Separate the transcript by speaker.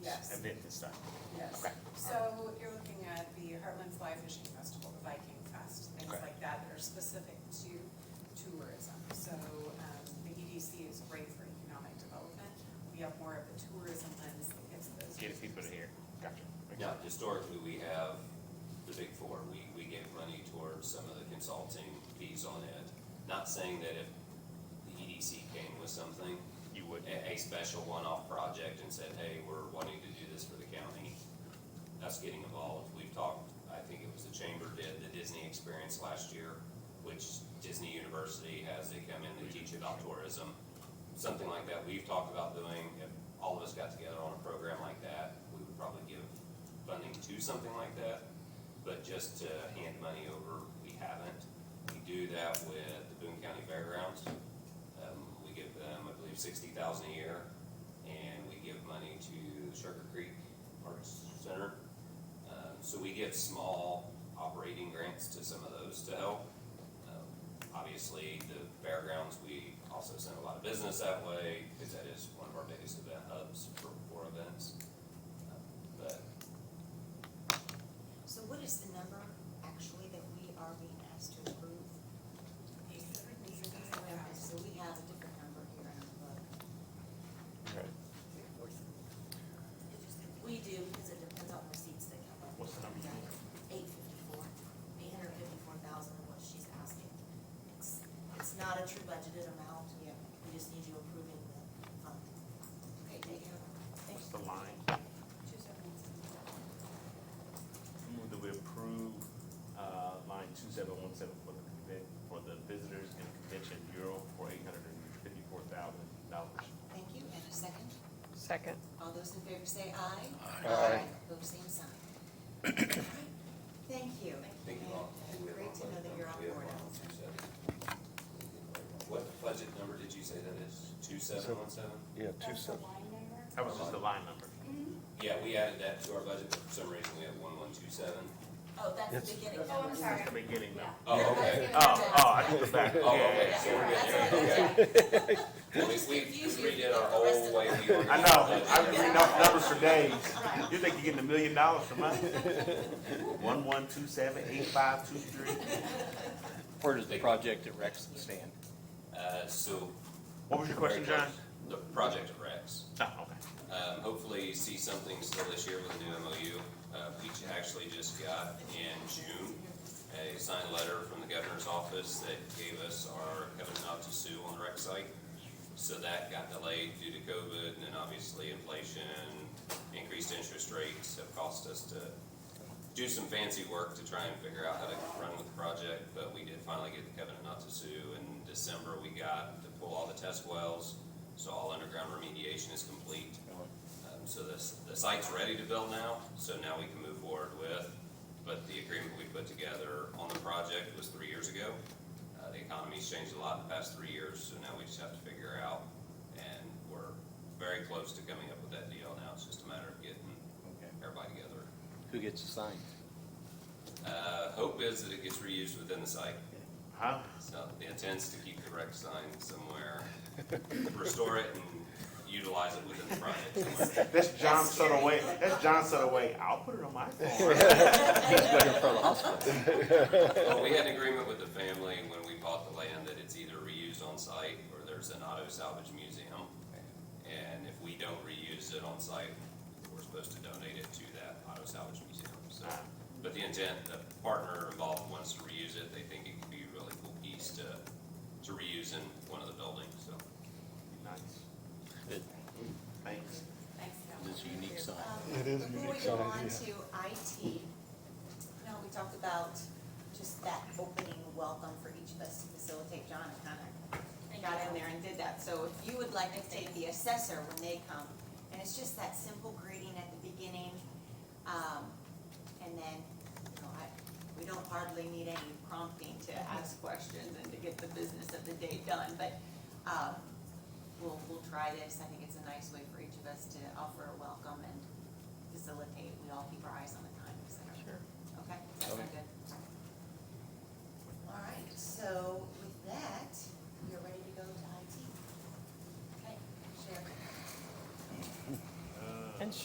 Speaker 1: Yes.
Speaker 2: event that's done.
Speaker 1: Yes.
Speaker 2: Okay.
Speaker 1: So you're looking at the Heartland's Live Fishing Festival, the Viking Fest, things
Speaker 2: Okay.
Speaker 1: like that that are specific to tourism. So um, the EDC is great for economic development. We have more of a tourism lens that gets those.
Speaker 2: Get people to here, gotcha.
Speaker 3: Yeah, historically, we have the big four, we, we gave money towards some of the consulting fees on it. Not saying that if the EDC came with something,
Speaker 2: You would,
Speaker 3: a, a special one-off project and said, hey, we're wanting to do this for the county, us getting involved, we've talked, I think it was the chamber did the Disney experience last year, which Disney University has, they come in, they teach you about tourism, something like that, we've talked about doing, if all of us got together on a program like that, we would probably give funding to something like that, but just to hand money over, we haven't. We do that with the Boone County Fairgrounds, um, we give them, I believe, sixty thousand a year, and we give money to Sugar Creek Arts Center. Um, so we give small operating grants to some of those to help. Um, Obviously, the fairgrounds, we also send a lot of business that way, because that is one of our biggest event hubs for, for events. Um, But
Speaker 4: So what is the number actually that we are being asked to approve? Okay, So we have a different number here in our book.
Speaker 2: Okay.
Speaker 4: We do, because it depends on receipts that come in.
Speaker 2: What's the number?
Speaker 4: Eight fifty-four, eight hundred fifty-four thousand is what she's asking. It's, it's not a true budgeted amount. Yeah. We just need you approving the fund. Okay, take it.
Speaker 2: what's the line?
Speaker 1: Two seventy-seven.
Speaker 2: Move that we approve, uh, line two seven one seven for the convent, for the Visitors and Convention Bureau for eight hundred and fifty-four thousand dollars.
Speaker 4: Thank you, and a second?
Speaker 5: Second.
Speaker 4: All those in favor say aye.
Speaker 2: Aye.
Speaker 4: Both same sign. Thank you.
Speaker 3: Thank you all.
Speaker 4: And Great to know that you're on
Speaker 3: We have
Speaker 4: board,
Speaker 3: one on
Speaker 4: Allison.
Speaker 3: 27. What budget number did you say that is? Two seven one seven?
Speaker 6: Yeah, two
Speaker 1: That's the
Speaker 6: seven,
Speaker 1: line number.
Speaker 2: That was just the line number.
Speaker 3: Yeah, we added that to our budget, but for some reason we have one one two seven.
Speaker 4: Oh, that's the
Speaker 6: Yes.
Speaker 4: beginning.
Speaker 7: Oh, I'm sorry.
Speaker 2: That's the beginning number.
Speaker 3: Oh, okay.
Speaker 2: Oh, oh, I think the back,
Speaker 3: Oh,
Speaker 2: yeah,
Speaker 3: okay,
Speaker 4: That's
Speaker 3: so we're good there,
Speaker 4: right,
Speaker 3: okay.
Speaker 4: that's right.
Speaker 3: We,
Speaker 4: Just
Speaker 3: we
Speaker 4: confuse you
Speaker 3: we redid
Speaker 4: with
Speaker 3: our
Speaker 4: the rest
Speaker 3: whole
Speaker 4: of
Speaker 3: way we were.
Speaker 2: I know, I've been reading off numbers for days.
Speaker 4: Right.
Speaker 2: You think you're getting a million dollars from us? One, one, two, seven, eight, five, two, three.
Speaker 6: where does the project at Rexton stand?
Speaker 3: Uh, so.
Speaker 2: What was your question, John?
Speaker 3: The project of Rex.
Speaker 2: Oh, okay.
Speaker 3: Um, hopefully see something still this year with the new MOU. Uh, we ju- actually just got in June a signed letter from the governor's office that gave us our covenant not to sue on the rec site. So that got delayed due to COVID and then obviously inflation, increased interest rates have cost us to do some fancy work to try and figure out how to run with the project, but we did finally get the covenant not to sue. In December, we got to pull all the test wells, so all underground remediation is complete. Um, So this, the site's ready to build now, so now we can move forward with, but the agreement we put together on the project was three years ago. Uh, The economy's changed a lot in the past three years, so now we just have to figure out, and we're very close to coming up with that deal now. It's just a matter of getting everybody together.
Speaker 6: Who gets assigned?
Speaker 3: Uh, hope is that it gets reused within the site.
Speaker 2: Huh?
Speaker 3: So the intent is to keep the wreck sign somewhere, restore it and utilize it within the project somewhere.
Speaker 2: That's John Sutter way, that's John Sutter way, I'll put it on my phone.
Speaker 6: Right in front of the hospital.
Speaker 3: Well, we had an agreement with the family when we bought the land that it's either reused on site or there's an auto salvage museum. And if we don't reuse it on site, we're supposed to donate it to that auto salvage museum, so. But the intent, the partner involved wants to reuse it, they think it could be a really cool piece to, to reuse in one of the buildings, so.
Speaker 2: Nice.
Speaker 6: It-
Speaker 2: Thanks.
Speaker 1: Thanks, Cal.
Speaker 6: It's a unique sign.
Speaker 4: It is Um, Before we go on to IT, now we talked about just that opening welcome for each of us to facilitate. John kind of got in there and did that. So if you would like to take the assessor when they come, and it's just that simple greeting at the beginning. um, And then, you know, I, we don't hardly need any prompting to ask questions and to get the business of the day done. But um, we'll, we'll try this. I think it's a nice way for each of us to offer a welcome and facilitate. We all keep our eyes on the